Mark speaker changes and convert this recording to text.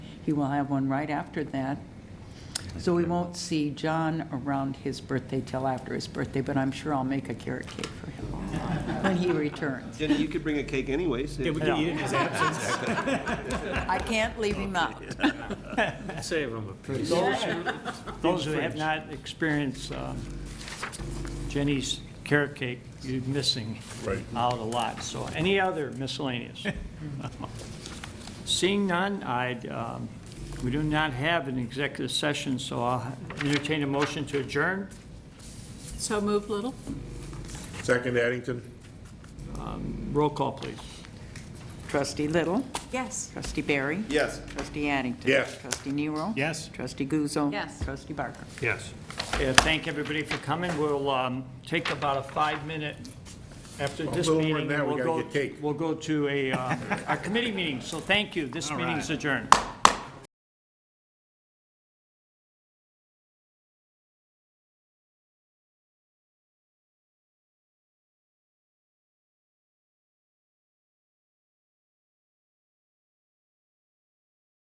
Speaker 1: He will have one right after that. So we won't see John around his birthday till after his birthday, but I'm sure I'll make a carrot cake for him when he returns.
Speaker 2: Jenny, you could bring a cake anyways.
Speaker 3: Yeah, we can eat it in his absence.
Speaker 1: I can't leave him out.
Speaker 4: Save them a piece.
Speaker 3: Those who- Those who have not experienced um, Jenny's carrot cake, you're missing
Speaker 5: Right.
Speaker 3: out a lot. So any other miscellaneous? Seeing none, I, um, we do not have an executive session, so I'll entertain a motion to adjourn.
Speaker 6: So moved, Little?
Speaker 5: Second Addington?
Speaker 3: Roll call, please.
Speaker 1: Trustee Little,
Speaker 6: Yes.
Speaker 1: trustee Barry,
Speaker 5: Yes.
Speaker 1: trustee Addington.
Speaker 5: Yes.
Speaker 1: Trustee Nero.
Speaker 4: Yes.
Speaker 1: Trustee Guzzo.
Speaker 6: Yes.
Speaker 1: Trustee Barker.
Speaker 4: Yes.
Speaker 3: Yeah, Thank everybody for coming. We'll um, take about a five-minute, after this
Speaker 5: little more than
Speaker 3: meeting,
Speaker 5: that, we
Speaker 3: we'll
Speaker 5: gotta
Speaker 3: go,
Speaker 5: get cake.
Speaker 3: we'll go to a, uh, a committee meeting. So thank you. This meeting is adjourned.